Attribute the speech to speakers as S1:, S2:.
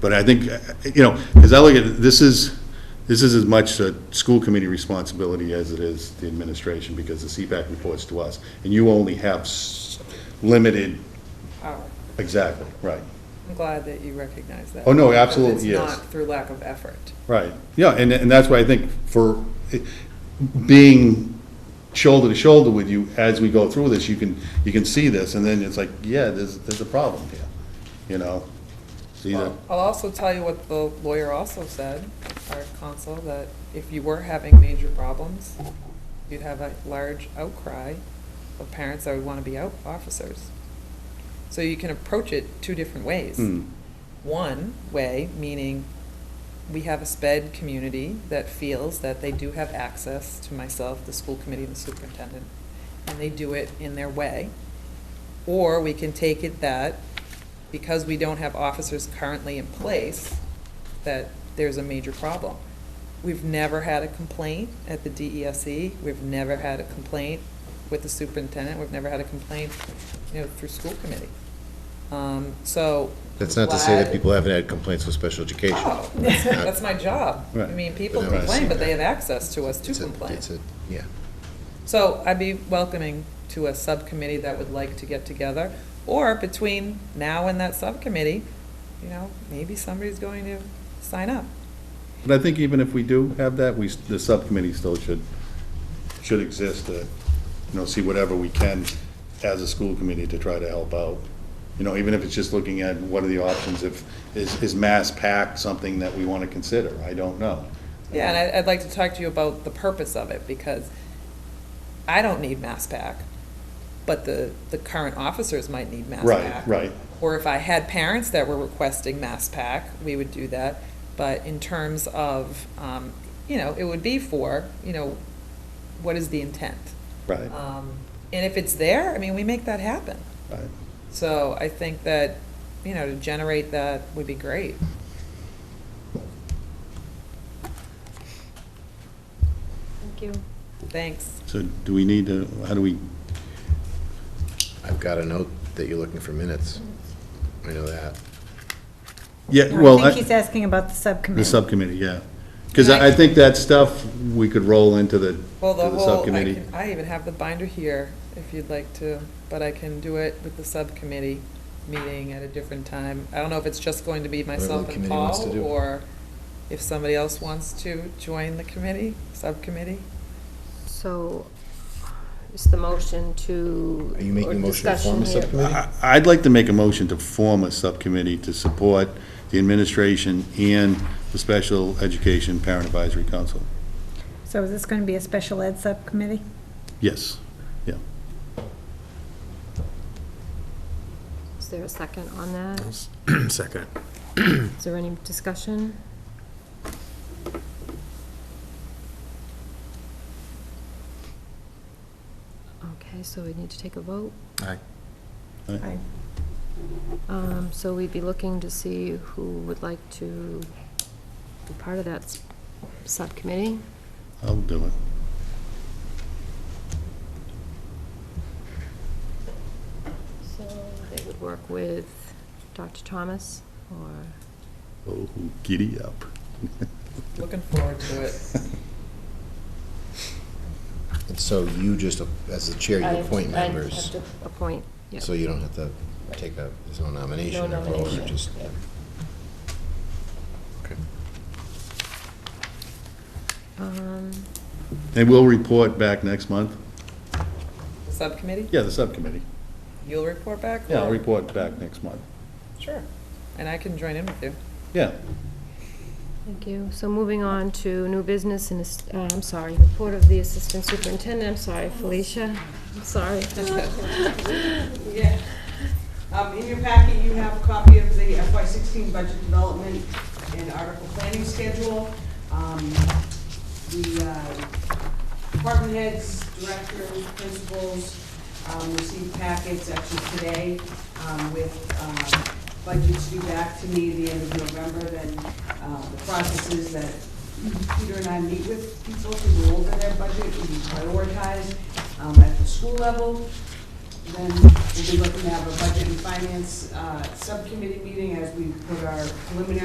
S1: But I think, you know, as I look at it, this is, this is as much a school committee responsibility as it is the administration, because the CPAC reports to us, and you only have s- limited,
S2: Oh,
S1: exactly, right,
S2: I'm glad that you recognize that.
S1: Oh, no,
S2: because
S1: absolutely, yes.
S2: It's not through lack of effort.
S1: right. Yeah, and, and that's why I think for it- being shoulder to shoulder with you as we go through this, you can, you can see this, and then it's like, yeah, there's, there's a problem here, you know? See that?
S2: I'll also tell you what the lawyer also said, our counsel, that if you were having major problems, you'd have a large outcry of parents that would want to be out officers. So you can approach it two different ways.
S1: Hmm.
S2: One way, meaning we have a sped community that feels that they do have access to myself, the school committee, and the superintendent, and they do it in their way. Or we can take it that because we don't have officers currently in place, that there's a major problem. We've never had a complaint at the DESE, E. we've never had a complaint with the superintendent, we've never had a complaint, you know, through school committee. Um, So.
S3: That's not to say that
S2: glad-
S3: people haven't had complaints with special education.
S2: Oh, that's that's my job. I
S1: Right.
S2: mean, people
S3: But I don't
S2: complain,
S3: see
S2: but they
S3: that.
S2: have access to us to
S3: It's a-
S2: complain.
S3: it's a- Yeah.
S2: So I'd be welcoming to a subcommittee that would like to get together, or between now and that subcommittee, you know, maybe somebody's going to sign up.
S1: But I think even if we do have that, we, the subcommittee still should, should exist to, you know, see whatever we can as a school committee to try to help out. You know, even if it's just looking at what are the options, if, is, is mass pack something that we want to consider? I don't know.
S2: Yeah, and I- I'd like to talk to you about the purpose of it, because I don't need Mass Pack, but the, the current officers might need Mass
S1: Right,
S2: Pack.
S1: right.
S2: Or if I had parents that were requesting Mass Pack, we would do that. But in terms of, um, you know, it would be for, you know, what is the intent?
S1: Right,
S2: Um, And if it's there, I mean, we make that happen.
S1: right.
S2: So I think that, you know, to generate that would be great.
S4: Thank you.
S2: Thanks.
S1: So do we need to, how do we,
S3: I've got a note that you're looking for minutes. I know that.
S1: yeah,
S4: No,
S1: well.
S4: I think he's asking about the
S1: The
S4: subcommittee.
S1: subcommittee, yeah. Because I I think that stuff, we could roll into the, to
S2: Well, the
S1: the
S2: whole, I
S1: subcommittee.
S2: can, I even have the binder here, if you'd like to, but I can do it with the subcommittee meeting at a different time. I don't know if it's just going to be
S3: the
S2: myself and
S3: committee wants to
S2: Paul,
S3: do.
S2: or if somebody else wants to join the committee, subcommittee.
S5: So is the motion to.
S3: Are you making a
S5: or
S3: motion to form a
S5: discussion here-
S3: subcommittee?
S1: I- I'd like to make a motion to form a subcommittee to support the administration and the Special Education Parent Advisory Council.
S4: So is this going to be a special ed subcommittee?
S1: Yes, yeah.
S5: Is there a second on that?
S6: Second.
S5: Is there any discussion? Okay, so we need to take a vote.
S3: Aye.
S4: I-
S5: Um, So we'd be looking to see who would like to be part of that s- subcommittee.
S1: I'll do it.
S5: So they would work with Dr. Thomas or?
S1: Oh, giddy up.
S2: Looking forward to it.
S3: And so you just, as the chair,
S5: I
S3: you appoint
S5: I
S3: members,
S5: have to Appoint, yeah.
S3: so you don't have to take a, there's no nomination
S5: No
S3: or vote,
S5: nomination,
S3: you just.
S5: yeah.
S3: Okay.
S5: Um,
S1: And we'll report back next month?
S2: Subcommittee,
S1: Yeah, the subcommittee.
S2: you'll report back?
S1: Yeah, I'll
S2: or-
S1: report back next month.
S2: Sure, and I can join in with you.
S1: Yeah.
S5: Thank you. So moving on to new business and, ass- uh, I'm sorry, report of the Assistant Superintendent. I'm sorry, Felicia. I'm sorry.
S7: Yeah. Um, in your packet, you have a copy of the FY sixteen budget development and article planning schedule. Um, the, uh, department heads, directors, principals, um, received packets actually today, um, with, um, budgets due back to me at the end of November, then, uh, the processes that Peter and I meet with people to go over their budget and prioritize um, at the school level. Then we'll be looking to have a budget and finance uh, subcommittee meeting as we put our preliminary